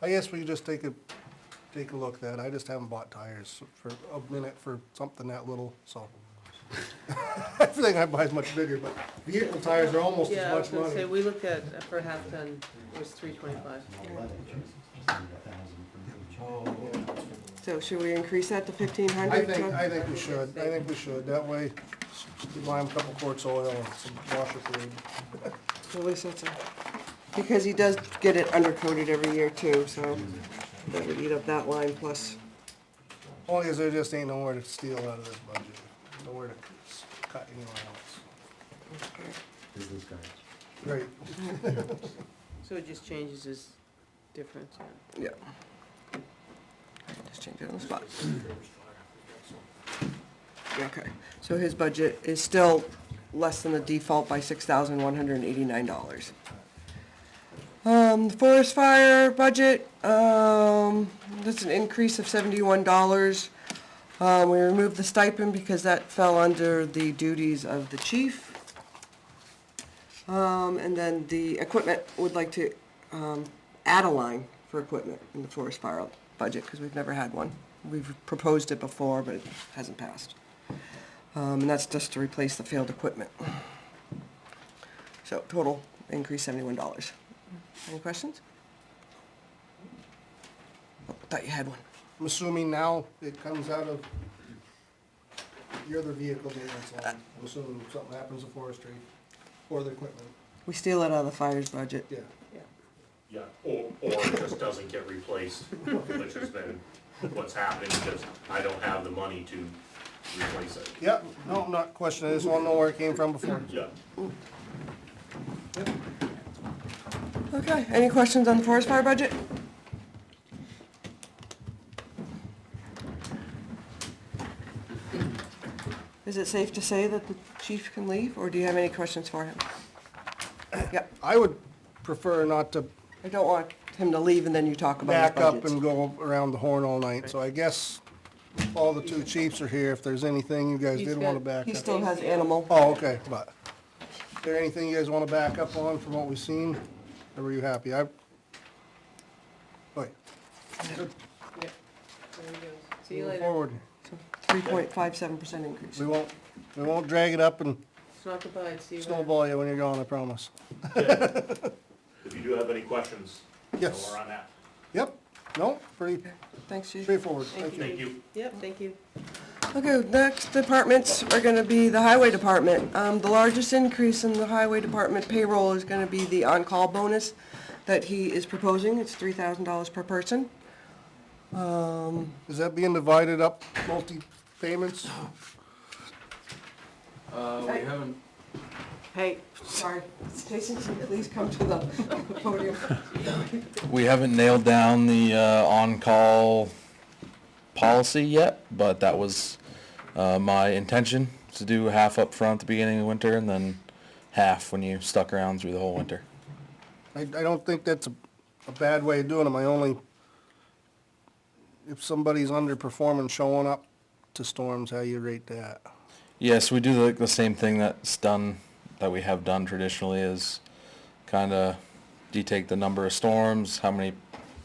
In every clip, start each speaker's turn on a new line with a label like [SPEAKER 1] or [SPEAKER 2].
[SPEAKER 1] I guess we just take a, take a look at that. I just haven't bought tires for a minute for something that little, so. Everything I buy is much bigger, but vehicle tires are almost
[SPEAKER 2] Yeah, I was
[SPEAKER 1] as
[SPEAKER 2] gonna
[SPEAKER 1] much
[SPEAKER 2] say,
[SPEAKER 1] money.
[SPEAKER 2] we looked at, uh, for a half ton, it was three twenty-five.
[SPEAKER 3] So should we increase that to fifteen
[SPEAKER 1] I
[SPEAKER 3] hundred?
[SPEAKER 1] think, I think we should. I think we should. That way, you buy them a couple quarts of oil and some washer fluid.
[SPEAKER 3] At least that's a, because he does get it undercoated every year too, so that would eat up that line plus,
[SPEAKER 1] Only is there just ain't nowhere to steal out of this budget, nowhere to c- cut anywhere else.
[SPEAKER 4] Business guys.
[SPEAKER 1] Right.
[SPEAKER 2] So it just changes his difference, yeah.
[SPEAKER 3] yeah. Just change it on the spot. Okay, so his budget is still less than the default by six thousand one hundred and eighty-nine dollars. Um, the forest fire budget, um, that's an increase of seventy-one dollars. Um, we removed the stipend because that fell under the duties of the chief. Um, and then the equipment, would like to, um, add a line for equipment in the forest fire budget, because we've never had one. We've proposed it before, but it hasn't passed. Um, and that's just to replace the failed equipment. So total increase seventy-one dollars. Any questions? Oh, I Thought you had one.
[SPEAKER 1] I'm assuming now it comes out of your other vehicle maintenance line, I'm assuming something happens to forestry or the equipment,
[SPEAKER 3] We steal it out of the fires budget.
[SPEAKER 1] yeah.
[SPEAKER 5] Yeah, or, or it just doesn't get replaced, which has been what's happening, because I don't have the money to replace it.
[SPEAKER 1] Yep, no, I'm not questioning, I just wanna know where it came from before.
[SPEAKER 5] Yeah,
[SPEAKER 3] Okay, any questions on the forest fire budget? Is it safe to say that the chief can leave, or do you have any questions for him? Yep,
[SPEAKER 1] I would prefer not to
[SPEAKER 3] I don't want him to leave and then you talk about
[SPEAKER 1] back
[SPEAKER 3] his
[SPEAKER 1] up
[SPEAKER 3] budgets.
[SPEAKER 1] and go around the horn all night, so I guess all the two chiefs are here, if there's anything you guys
[SPEAKER 2] He's
[SPEAKER 1] didn't wanna
[SPEAKER 2] got-
[SPEAKER 1] back
[SPEAKER 3] He
[SPEAKER 1] up.
[SPEAKER 3] still has animal.
[SPEAKER 1] Oh, okay, but, is there anything you guys wanna back up on from what we've seen, or were you happy? I, wait,
[SPEAKER 2] There he goes. See you
[SPEAKER 1] moving
[SPEAKER 2] later.
[SPEAKER 1] forward,
[SPEAKER 3] Three point five seven percent increase.
[SPEAKER 1] we won't, we won't drag it up and
[SPEAKER 2] It's not goodbye, see you later.
[SPEAKER 1] snowball you when you're gone, I promise.
[SPEAKER 5] if you do have any questions, you know
[SPEAKER 1] Yes.
[SPEAKER 5] we're on that.
[SPEAKER 1] Yep, no, pretty
[SPEAKER 3] Thanks, chief.
[SPEAKER 1] straightforward, thank you.
[SPEAKER 5] Thank you.
[SPEAKER 2] Yep, thank you.
[SPEAKER 3] Okay, next departments are gonna be the highway department. Um, the largest increase in the highway department payroll is gonna be the on-call bonus that he is proposing. It's three thousand dollars per person.
[SPEAKER 1] Is that being divided up, multi-payments?
[SPEAKER 6] Uh, we haven't,
[SPEAKER 3] Hey, sorry, Jason, can you at least come to the podium.
[SPEAKER 7] We haven't nailed down the uh, on-call policy yet, but that was uh, my intention, is to do half up front at the beginning of winter and then half when you stuck around through the whole winter.
[SPEAKER 1] I, I don't think that's a, a bad way of doing it, my only, if somebody's underperforming, showing up to storms, how you rate that?
[SPEAKER 7] Yes, we do the, the same thing that's done, that we have done traditionally is kind of, do you take the number of storms, how many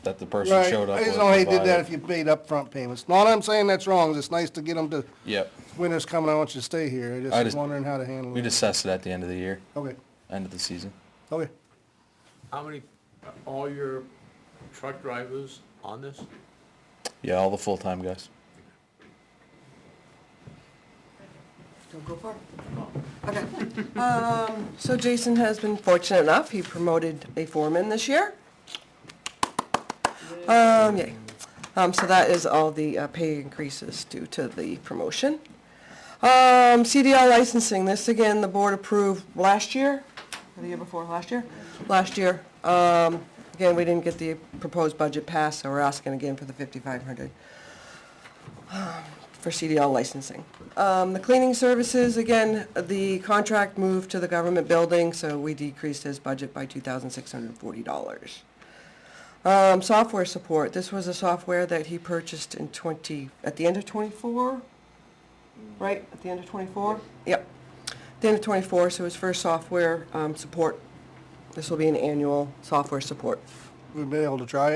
[SPEAKER 7] that the person
[SPEAKER 1] Right,
[SPEAKER 7] showed up
[SPEAKER 1] I
[SPEAKER 7] with?
[SPEAKER 1] just know how you did
[SPEAKER 7] divided.
[SPEAKER 1] that if you paid upfront payments, not that I'm saying that's wrong, it's nice to get them to,
[SPEAKER 7] Yep,
[SPEAKER 1] winter's coming, I want you to stay here, I just
[SPEAKER 7] I
[SPEAKER 1] was
[SPEAKER 7] just-
[SPEAKER 1] wondering how to handle it.
[SPEAKER 7] we'd assess it at the end of the year,
[SPEAKER 1] Okay,
[SPEAKER 7] end of the season.
[SPEAKER 1] okay,
[SPEAKER 6] how many, are all your truck drivers on this?
[SPEAKER 7] Yeah, all the full-time guys.
[SPEAKER 3] Don't go far.
[SPEAKER 6] No.
[SPEAKER 3] Okay. Um, so Jason has been fortunate enough, he promoted a foreman this year. Um, yay. Um, so that is all the uh, pay increases due to the promotion. Um, CDL licensing, this again, the board approved last year, or the year before, last year? Last year. Um, again, we didn't get the proposed budget passed, so we're asking again for the fifty-five hundred um, for CDL licensing. Um, the cleaning services, again, the contract moved to the government building, so we decreased his budget by two thousand six hundred and forty dollars. Um, software support, this was a software that he purchased in twenty, at the end of twenty-four? Right, at the end of twenty-four? Yep. At the end of twenty-four, so his first software, um, support. This will be an annual software support.
[SPEAKER 1] we've been able to try it.